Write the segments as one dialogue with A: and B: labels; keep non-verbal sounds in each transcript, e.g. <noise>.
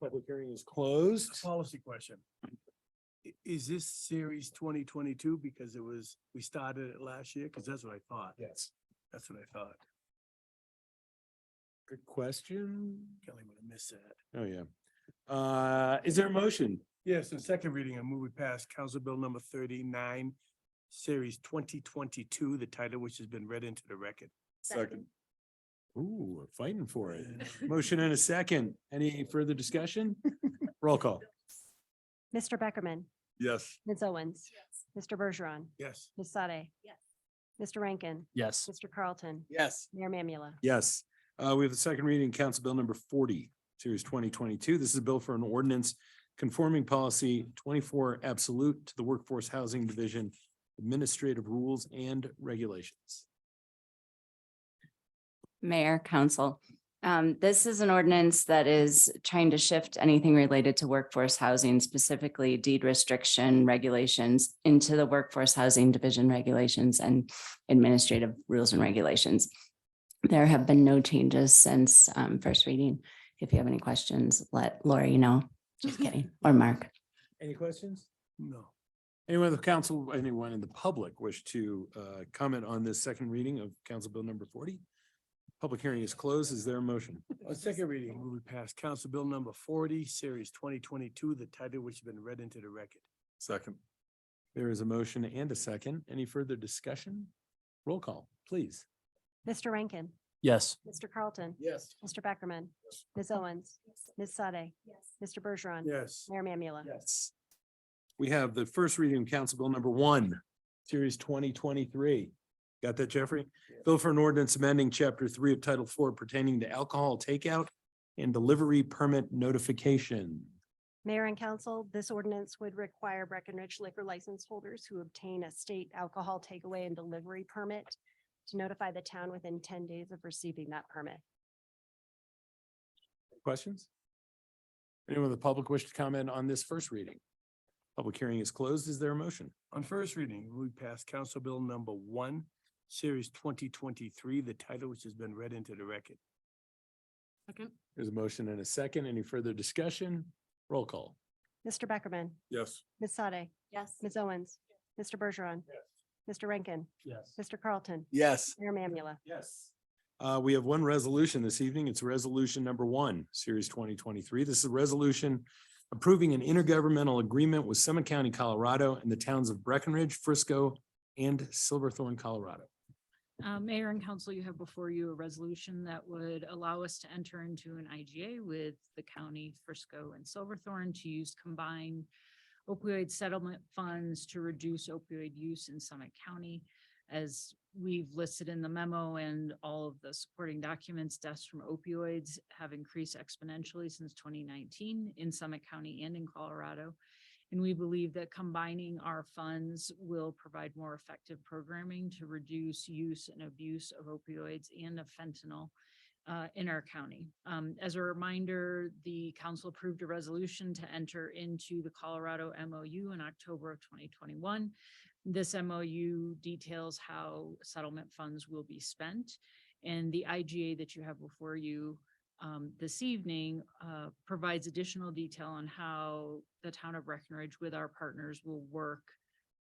A: Public hearing is closed.
B: Policy question. I- Is this series twenty twenty-two because it was, we started it last year? Cause that's what I thought.
A: Yes.
B: That's what I thought.
A: Good question.
B: Kelly would have missed that.
A: Oh, yeah. Uh, is there a motion?
B: Yes, in second reading, I move we pass Council Bill number thirty-nine, series twenty twenty-two, the title which has been read into the record.
C: Second.
A: Ooh, we're fighting for <laughs> it. Motion and a second. Any further discussion? Roll call.
D: Mr. Beckerman,
C: Yes.
D: Ms. Owens, Mr. Bergeron,
B: Yes,
D: Ms. Sade.
E: Yes.
D: Mr. Rankin,
A: Yes.
D: Mr. Carlton,
A: Yes.
D: Mayor Mamula.
A: Yes. Uh, we have the second reading, Council Bill number forty, series twenty twenty-two. This is a bill for an ordinance conforming policy twenty-four absolute to the Workforce Housing Division Administrative Rules and Regulations.
F: Mayor, Council. Um, this is an ordinance that is trying to shift anything related to workforce housing, specifically deed restriction regulations into the workforce housing division regulations and administrative rules and regulations. There have been no changes since um first reading. If you have any questions, let Lori know. Just kidding, or Mark.
A: Any questions?
B: no.
A: Anyone in the council, anyone in the public wish to uh comment on this second reading of Council Bill number forty? Public hearing is closed. Is there a motion?
B: On Uh, second reading, move we pass Council Bill number forty, series twenty twenty-two, the title which has been read into the record.
C: Second.
A: There is a motion and a second. Any further discussion? Roll call, please.
D: Mr. Rankin,
A: Yes.
D: Mr. Carlton,
B: Yes.
D: Mr. Beckerman, Ms. Owens, Ms. Sade, Mr. Bergeron.
B: Yes.
D: Mayor Mamula.
A: Yes. We have the first reading of Council Bill number one, series twenty twenty-three. Got that, Jeffrey? Bill for an ordinance amending chapter three of title four pertaining to alcohol takeout and delivery permit notification.
D: Mayor and council, this ordinance would require Breckenridge liquor license holders who obtain a state alcohol takeaway and delivery permit to notify the town within ten days of receiving that permit.
A: Questions? Anyone in the public wish to comment on this first reading? Public hearing is closed. Is there a motion?
B: On first reading, we pass Council Bill number one, series twenty twenty-three, the title which has been read into the record.
E: Second.
A: There's a motion and a second. Any further discussion? Roll call.
D: Mr. Beckerman,
C: Yes.
D: Ms. Sade,
E: Yes.
D: Ms. Owens, Mr. Bergeron, Mr. Rankin,
B: Yes.
D: Mr. Carlton,
C: Yes.
D: Mayor Mamula.
A: Yes. Uh, we have one resolution this evening. It's resolution number one, series twenty twenty-three. This is a resolution approving an intergovernmental agreement with Summit County, Colorado and the towns of Breckenridge, Frisco and Silverthorne, Colorado.
G: Uh, Mayor and council, you have before you a resolution that would allow us to enter into an IGA with the county Frisco and Silverthorne to use combined opioid settlement funds to reduce opioid use in Summit County. As we've listed in the memo and all of the supporting documents, deaths from opioids have increased exponentially since twenty nineteen in Summit County and in Colorado. And we believe that combining our funds will provide more effective programming to reduce use and abuse of opioids and of fentanyl uh, in our county. Um, as a reminder, the council approved a resolution to enter into the Colorado MOU in October of twenty twenty-one. This MOU details how settlement funds will be spent. And the IGA that you have before you um, this evening uh, provides additional detail on how the town of Breckenridge with our partners will work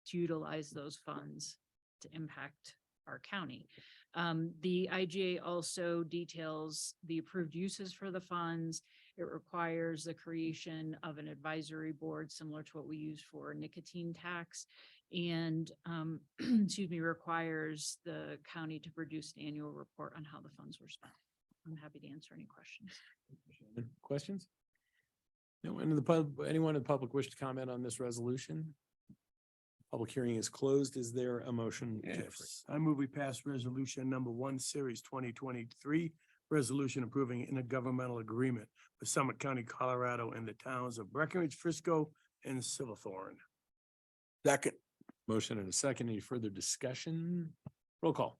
G: to utilize those funds to impact our county. Um, the IGA also details the approved uses for the funds. It requires the creation of an advisory board similar to what we use for nicotine tax. And, um, <clears throat> excuse me, requires the county to produce an annual report on how the funds were spent. I'm happy to answer any questions.
A: Questions? No, and the pub, anyone in the public wish to comment on this resolution? Public hearing is closed. Is there a motion? Jeffrey?
B: Yes. I move we pass resolution number one, series twenty twenty-three, resolution approving intergovernmental agreement with Summit County, Colorado and the towns of Breckenridge, Frisco and Silverthorne.
C: Second.
A: Motion and a second. Any further discussion? Roll call.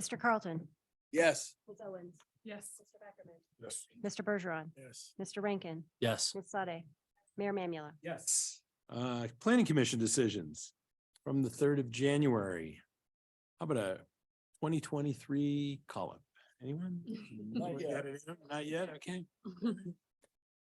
D: Mr. Carlton,
C: Yes.
D: Ms. Owens,
G: Yes.
D: Mr. Beckerman,
C: Yes.
D: Mr. Bergeron,
B: Yes.
D: Mr. Rankin,
A: Yes.
D: Ms. Sade, Mayor Mamula.
A: Yes. Uh, planning commission decisions from the third of January. How about a twenty twenty-three call up? Anyone? Anyone got it? Not yet, okay.